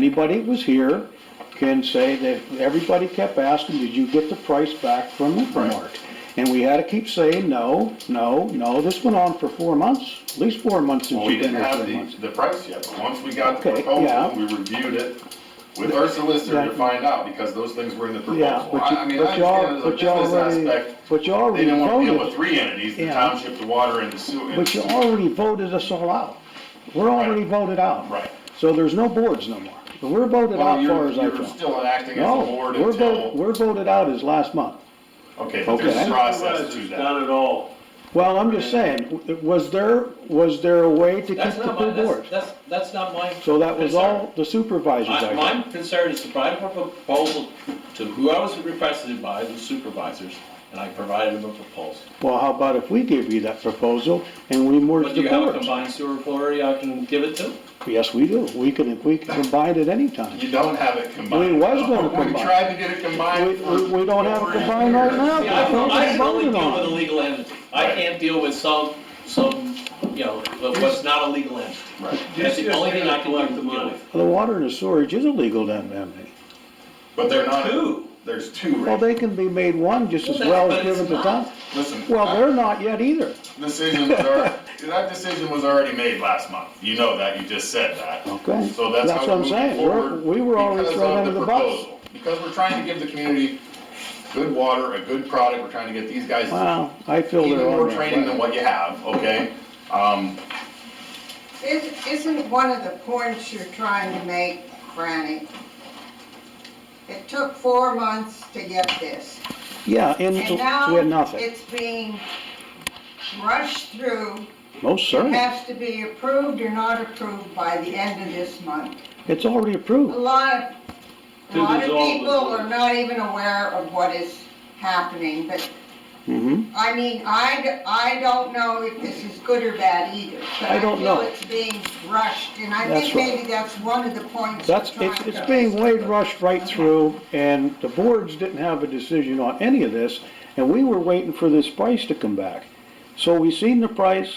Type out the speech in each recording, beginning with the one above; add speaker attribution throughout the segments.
Speaker 1: Anybody who was here can say that everybody kept asking, did you get the price back from Infomart? And we had to keep saying, no, no, no, this went on for four months, at least four months since
Speaker 2: Well, we
Speaker 1: you've been
Speaker 2: didn't
Speaker 1: here,
Speaker 2: have
Speaker 1: four
Speaker 2: the,
Speaker 1: months.
Speaker 2: the price yet, but once we got the
Speaker 1: Okay, yeah.
Speaker 2: proposal, we reviewed it with our solicitor to
Speaker 1: Yeah.
Speaker 2: find out, because those things were in the
Speaker 1: Yeah,
Speaker 2: proposal.
Speaker 1: but
Speaker 2: I I
Speaker 1: you,
Speaker 2: mean, I
Speaker 1: but
Speaker 2: understand
Speaker 1: y'all,
Speaker 2: as a
Speaker 1: but y'all
Speaker 2: business
Speaker 1: already,
Speaker 2: aspect,
Speaker 1: but you
Speaker 2: they
Speaker 1: already
Speaker 2: didn't want to deal with
Speaker 1: voted,
Speaker 2: three entities, the
Speaker 1: Yeah.
Speaker 2: township, the water, and the sewer.
Speaker 1: but you already voted us all out. We're already voted out.
Speaker 2: Right.
Speaker 1: So there's no boards no more. We're voted out
Speaker 2: Well,
Speaker 1: far
Speaker 2: you're,
Speaker 1: as I
Speaker 2: you're
Speaker 1: can.
Speaker 2: still acting as a
Speaker 1: No,
Speaker 2: board
Speaker 1: we're voted,
Speaker 2: until,
Speaker 1: we're voted out as last month.
Speaker 2: okay, but there's
Speaker 1: Okay.
Speaker 2: a process to
Speaker 3: It's
Speaker 2: that.
Speaker 3: Not at all.
Speaker 1: Well, I'm just saying, was there, was there a way to keep
Speaker 4: That's
Speaker 1: the
Speaker 4: not my,
Speaker 1: two
Speaker 4: that's,
Speaker 1: boards?
Speaker 4: that's, that's not my.
Speaker 1: So that was
Speaker 4: concern.
Speaker 1: all the supervisors,
Speaker 4: My,
Speaker 1: I
Speaker 4: my
Speaker 1: guess.
Speaker 4: concern is to provide a proposal to who I was requested by, the supervisors, and I provided them a proposal.
Speaker 1: Well, how about if we give you that proposal and we merge
Speaker 4: But do
Speaker 1: the
Speaker 4: you have a
Speaker 1: boards?
Speaker 4: combined sewer authority I can give it to?
Speaker 1: Yes, we do. We can, we can combine it anytime.
Speaker 2: You don't have it combined.
Speaker 1: We was gonna
Speaker 2: We
Speaker 1: combine.
Speaker 2: tried to get it combined.
Speaker 1: We-
Speaker 2: for
Speaker 1: we- we don't have it
Speaker 2: over a
Speaker 1: combined
Speaker 2: year.
Speaker 1: right now.
Speaker 4: See, I can, I can only
Speaker 1: Voting
Speaker 4: deal
Speaker 1: on
Speaker 4: with
Speaker 1: it.
Speaker 4: a legal entity. I
Speaker 2: Right.
Speaker 4: can't deal with some, some, you know, what- what's not a legal entity.
Speaker 2: Right.
Speaker 4: That's the
Speaker 3: Just-
Speaker 4: only
Speaker 3: just
Speaker 4: thing I can
Speaker 3: collect the
Speaker 4: deal
Speaker 3: money.
Speaker 4: with.
Speaker 1: The water and the storage is illegal down there.
Speaker 2: But they're not,
Speaker 4: Two.
Speaker 2: there's two,
Speaker 1: Well,
Speaker 2: right?
Speaker 1: they can be made one just as
Speaker 4: Well,
Speaker 1: well
Speaker 4: that's-
Speaker 1: as
Speaker 4: but it's
Speaker 1: given to
Speaker 4: not.
Speaker 1: town.
Speaker 2: Listen.
Speaker 1: Well,
Speaker 2: I-
Speaker 1: they're not yet either.
Speaker 2: Decision was already, that decision was already made last month. You know that, you just said that.
Speaker 1: Okay.
Speaker 2: So that's
Speaker 1: That's
Speaker 2: how
Speaker 1: what
Speaker 2: we're
Speaker 1: I'm
Speaker 2: moving
Speaker 1: saying. We're-
Speaker 2: forward.
Speaker 1: we were already
Speaker 2: because
Speaker 1: thrown
Speaker 2: of
Speaker 1: under
Speaker 2: the
Speaker 1: the bus.
Speaker 2: proposal. Because we're trying to give the community good water, a good product. We're trying to get these guys
Speaker 1: Wow, I feel
Speaker 2: even
Speaker 1: they're on
Speaker 2: more
Speaker 1: that.
Speaker 2: training than what you have, okay? Um,
Speaker 5: Is- Isn't one of the points you're trying to make, Franny? It took four months to get this,
Speaker 1: Yeah, and
Speaker 5: and
Speaker 1: we had
Speaker 5: now
Speaker 1: nothing.
Speaker 5: it's being rushed through.
Speaker 1: Most
Speaker 5: It
Speaker 1: certainly.
Speaker 5: has to be approved or not approved by the end of this month.
Speaker 1: It's already
Speaker 5: A
Speaker 1: approved.
Speaker 5: lot of, a
Speaker 3: To
Speaker 5: lot of
Speaker 3: dissolve the
Speaker 5: people are
Speaker 3: board.
Speaker 5: not even aware of what is happening, but
Speaker 1: hmm
Speaker 5: I mean, I, d- I don't know if this is good or bad either. but
Speaker 1: I don't know.
Speaker 5: feel it's being rushed, and I
Speaker 1: That's
Speaker 5: think
Speaker 1: right.
Speaker 5: maybe that's one of the points you're
Speaker 1: That's,
Speaker 5: trying
Speaker 1: it's,
Speaker 5: to...
Speaker 1: it's being wade rushed right through, and the boards didn't have a decision on any of this, and we were waiting for this price to come back. So we seen the price,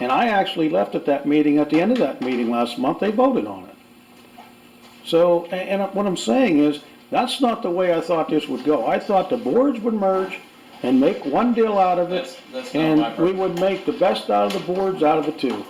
Speaker 1: and I actually left at that meeting, at the end of that meeting last month, they voted on it. So, a- and, and what I'm saying is, that's not the way I thought this would go. I thought the boards would merge and make one deal out of it,
Speaker 4: That's, that's not my
Speaker 1: and we
Speaker 4: purpose.
Speaker 1: would make the best out of the boards out of the two.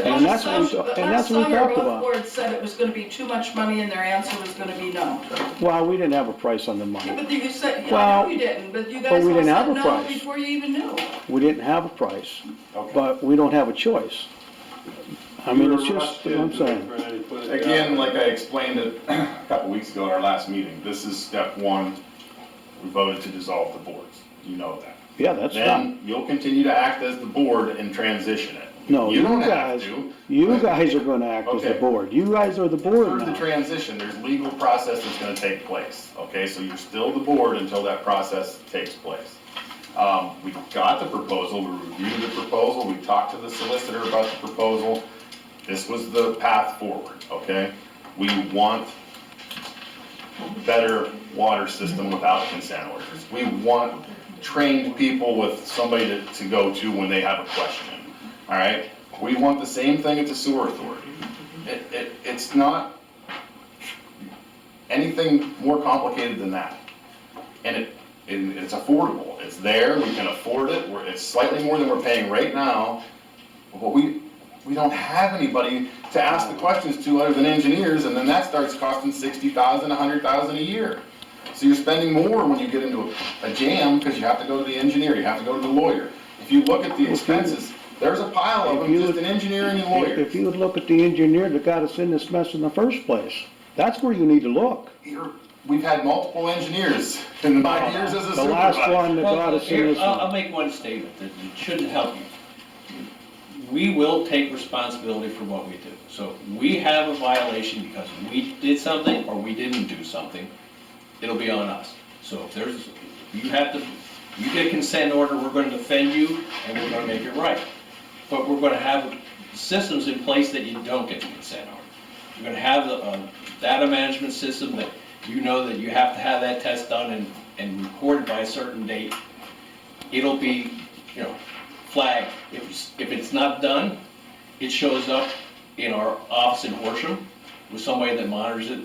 Speaker 1: And that's what, we- and that's what we talked
Speaker 6: But last summer, both
Speaker 1: about.
Speaker 6: boards said it was gonna be too much money, and their answer was gonna be no.
Speaker 1: Well, we didn't have a price on the
Speaker 6: Yeah,
Speaker 1: money.
Speaker 6: but you said, I
Speaker 1: Well,
Speaker 6: know you didn't, but you
Speaker 1: but
Speaker 6: guys
Speaker 1: we
Speaker 6: all
Speaker 1: didn't have
Speaker 6: said
Speaker 1: a
Speaker 6: no
Speaker 1: price.
Speaker 6: before you even knew.
Speaker 1: We didn't have a price,
Speaker 2: Okay.
Speaker 1: but we don't have a choice. I mean,
Speaker 3: You
Speaker 1: it's
Speaker 3: were
Speaker 1: just,
Speaker 3: rushed
Speaker 1: you know what I'm
Speaker 3: into it,
Speaker 1: saying,
Speaker 3: Brian, and put it
Speaker 2: Again,
Speaker 3: down.
Speaker 2: like I explained it a couple weeks ago in our last meeting, this is step one. We voted to dissolve the boards. You know that.
Speaker 1: yeah, that's
Speaker 2: Then
Speaker 1: done.
Speaker 2: you'll continue to act as the board and transition it.
Speaker 1: No, you
Speaker 2: don't have
Speaker 1: guys,
Speaker 2: to.
Speaker 1: you guys are gonna act as the
Speaker 2: Okay.
Speaker 1: board, you guys are the board
Speaker 2: Through the
Speaker 1: now.
Speaker 2: transition, there's legal process that's gonna take place, okay? So you're still the board until that process takes place. Um, we got the proposal, we reviewed the proposal, we talked to the solicitor about the proposal. This was the path forward, okay? We want better water system without consent orders. We want trained people with somebody to, to go to when they have a question, all right? We want the same thing at the sewer authority. It, it, it's not anything more complicated than that. And it, and it's affordable, it's there, we can afford it, we're, it's slightly more than we're paying right now. But we, we don't have anybody to ask the questions to other than engineers, and then that starts costing sixty thousand, a hundred thousand a year. So you're spending more when you get into a- a jam, because you have to go to the engineer, you have to go to the lawyer. If you look at the expenses, there's a pile of
Speaker 1: If
Speaker 2: them,
Speaker 1: you
Speaker 2: just
Speaker 1: would-
Speaker 2: in engineering and lawyers.
Speaker 1: If you would look at the engineer that got us in this mess in the first place, that's where you need to look.
Speaker 2: You're, we've had multiple engineers in my years as a
Speaker 1: The last one
Speaker 2: supervisor.
Speaker 1: that got
Speaker 4: Well,
Speaker 1: us in
Speaker 4: here, uh,
Speaker 1: this,
Speaker 4: I'll, I'll make one statement that it shouldn't help you. We will take responsibility for what we do. So if we have a violation because we did something or we didn't do something, it'll be on us. So if there's, you have to, you get a consent order, we're gonna defend you and we're gonna make it right. But we're gonna have systems in place that you don't get the consent order. You're gonna have the, uh, data management system that you know that you have to have that test done and, and recorded by a certain date. It'll be, you know, flagged. If, it's- if it's not done, it shows up in our office in Horsham. with somebody that monitors it